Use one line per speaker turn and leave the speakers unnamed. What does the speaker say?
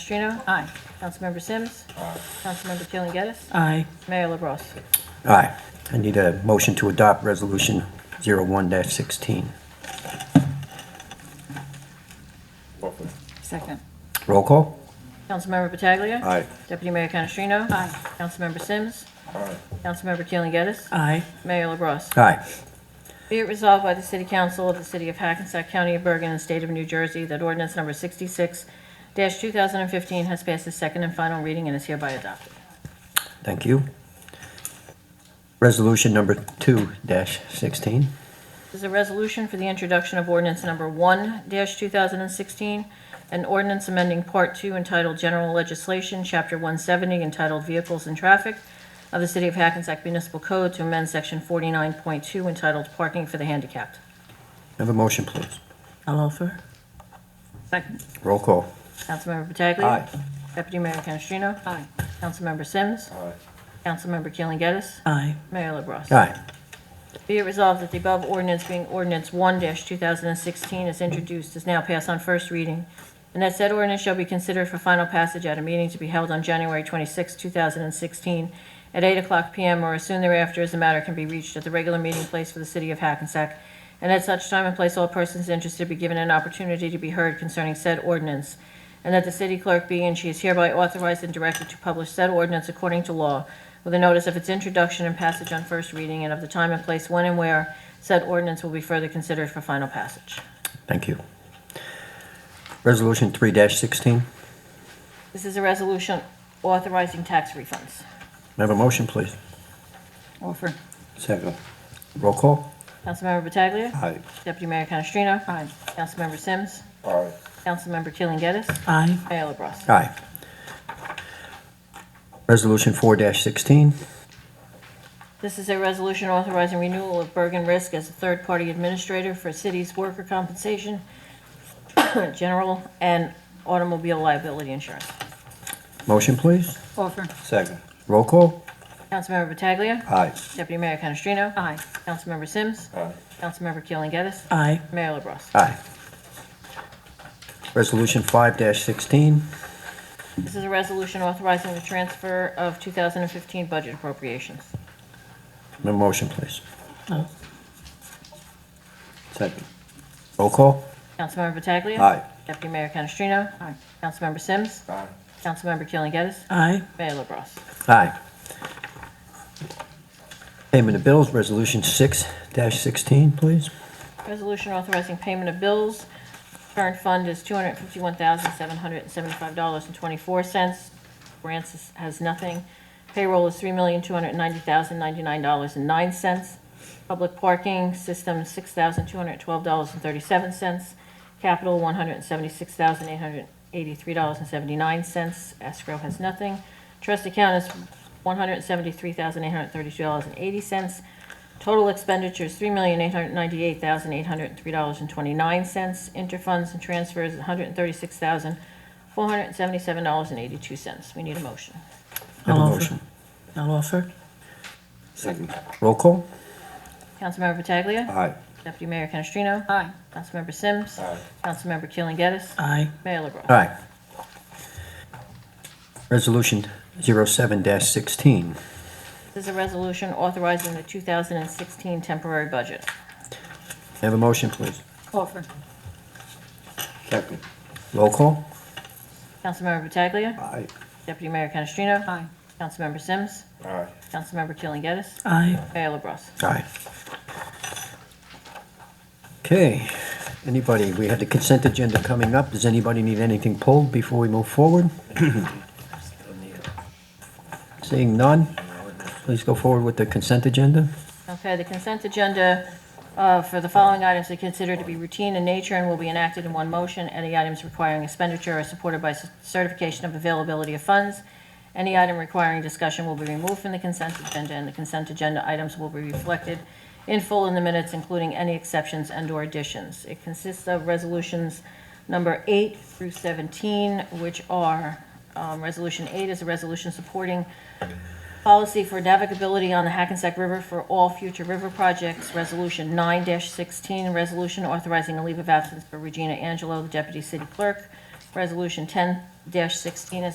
Canestrino? Aye. Councilmember Sims? Aye. Councilmember Keeling Geddes?
Aye.
Mayor LaBrus?
Aye. I need a motion to adopt Resolution 01-16.
Second.
Roll call?
Councilmember Pataglia?
Aye.
Deputy Mayor Canestrino? Aye. Councilmember Sims? Aye. Councilmember Keeling Geddes?
Aye.
Mayor LaBrus?
Aye.
Be it resolved by the City Council of the City of Hackensack County of Bergen and State of New Jersey that ordinance number 66-2015 has passed its second and final reading and is hereby adopted.
Thank you. Resolution number 2-16.
This is a resolution for the introduction of ordinance number 1-2016, an ordinance amending Part 2 entitled General Legislation, Chapter 170 entitled Vehicles and Traffic of the City of Hackensack Municipal Code to amend Section 49.2 entitled Parking for the Handicapped.
Have a motion, please.
I'll offer.
Second.
Roll call?
Councilmember Pataglia. Deputy Mayor Canestrino. Aye. Councilmember Sims. Aye. Councilmember Keeling Geddes.
Aye.
Mayor LaBrus.
Aye.
Be it resolved that the above ordinance being ordinance one two thousand and sixteen is introduced, is now passed on first reading, and that said ordinance shall be considered for final passage at a meeting to be held on January twenty-sixth, two thousand and sixteen, at eight o'clock PM or as soon thereafter as the matter can be reached at the regular meeting place for the city of Hackensack, and at such time and place all persons interested be given an opportunity to be heard concerning said ordinance, and that the city clerk be and she is hereby authorized and directed to publish said ordinance according to law with a notice of its introduction and passage on first reading and of the time and place when and where said ordinance will be further considered for final passage.
Thank you. Resolution 3-16.
This is a resolution authorizing tax refunds.
Have a motion, please.
Offer.
Second. Roll call?
Councilmember Pataglia.
Aye.
Deputy Mayor Canestrino. Aye. Councilmember Sims. Aye. Councilmember Keeling Geddes.
Aye.
Mayor LaBrus.
Aye. Resolution 4-16.
This is a resolution authorizing renewal of Bergen Risk as a third-party administrator for city's worker compensation, general, and automobile liability insurance.
Motion, please.
Offer.
Second. Roll call?
Councilmember Pataglia.
Aye.
Deputy Mayor Canestrino. Aye. Councilmember Sims. Aye. Councilmember Keeling Geddes.
Aye.
Mayor LaBrus.
Aye. Resolution 5-16.
This is a resolution authorizing the transfer of 2015 budget appropriations.
Have a motion, please.
Oh,
Second. Roll call?
Councilmember Pataglia.
Aye.
Deputy Mayor Canestrino. Aye. Councilmember Sims. Aye. Councilmember Keeling Geddes.
Aye.
Mayor LaBrus.
Aye. Payment of bills, Resolution 6-16, please.
Resolution authorizing payment of bills. Current fund is $251,775.24. Grants is- has nothing. Payroll is $3,290,099.09. Public parking system, $6,212.37. Capital, $176,883.79. Escrow has nothing. Trust account is $173,832.80. Total expenditures, three million eight hundred ninety-eight thousand eight hundred three dollars and twenty-nine cents. Interfunds and transfers, one hundred thirty-six thousand four hundred seventy-seven dollars and eighty-two cents. We need a motion.
Have a
I'll offer.
motion.
I'll offer.
Second. Roll call?
Councilmember Pataglia.
Aye.
Deputy Mayor Canestrino. Aye. Councilmember Sims. Aye. Councilmember Keeling Geddes.
Aye.
Mayor LaBrus.
Aye. Resolution 07-16.
This is a resolution authorizing the two thousand and sixteen temporary budget.
Have a motion, please.
Offer.
Second. Roll call?
Councilmember Pataglia.
Aye.
Deputy Mayor Canestrino.
Aye.
Councilmember Sims. Aye. Councilmember Keeling Geddes.
Aye.
Mayor LaBrus.
Aye. Okay, anybody, we had the consent agenda coming up. Does anybody need anything pulled before we move forward? Seeing none, please go forward with the consent agenda.
Okay, the consent agenda uh, for the following items are considered to be routine in nature and will be enacted in one motion. Any items requiring expenditure are supported by certification of availability of funds. Any item requiring discussion will be removed from the consent agenda, and the consent agenda items will be reflected in full in the minutes, including any exceptions and/or additions. It consists of resolutions number eight through 17, which are, um, Resolution eight is a resolution supporting Policy for navigability on the Hackensack River for all future river projects, Resolution 9-16, resolution authorizing a leave of absence for Regina Angelo, the deputy city clerk, Resolution ten sixteen is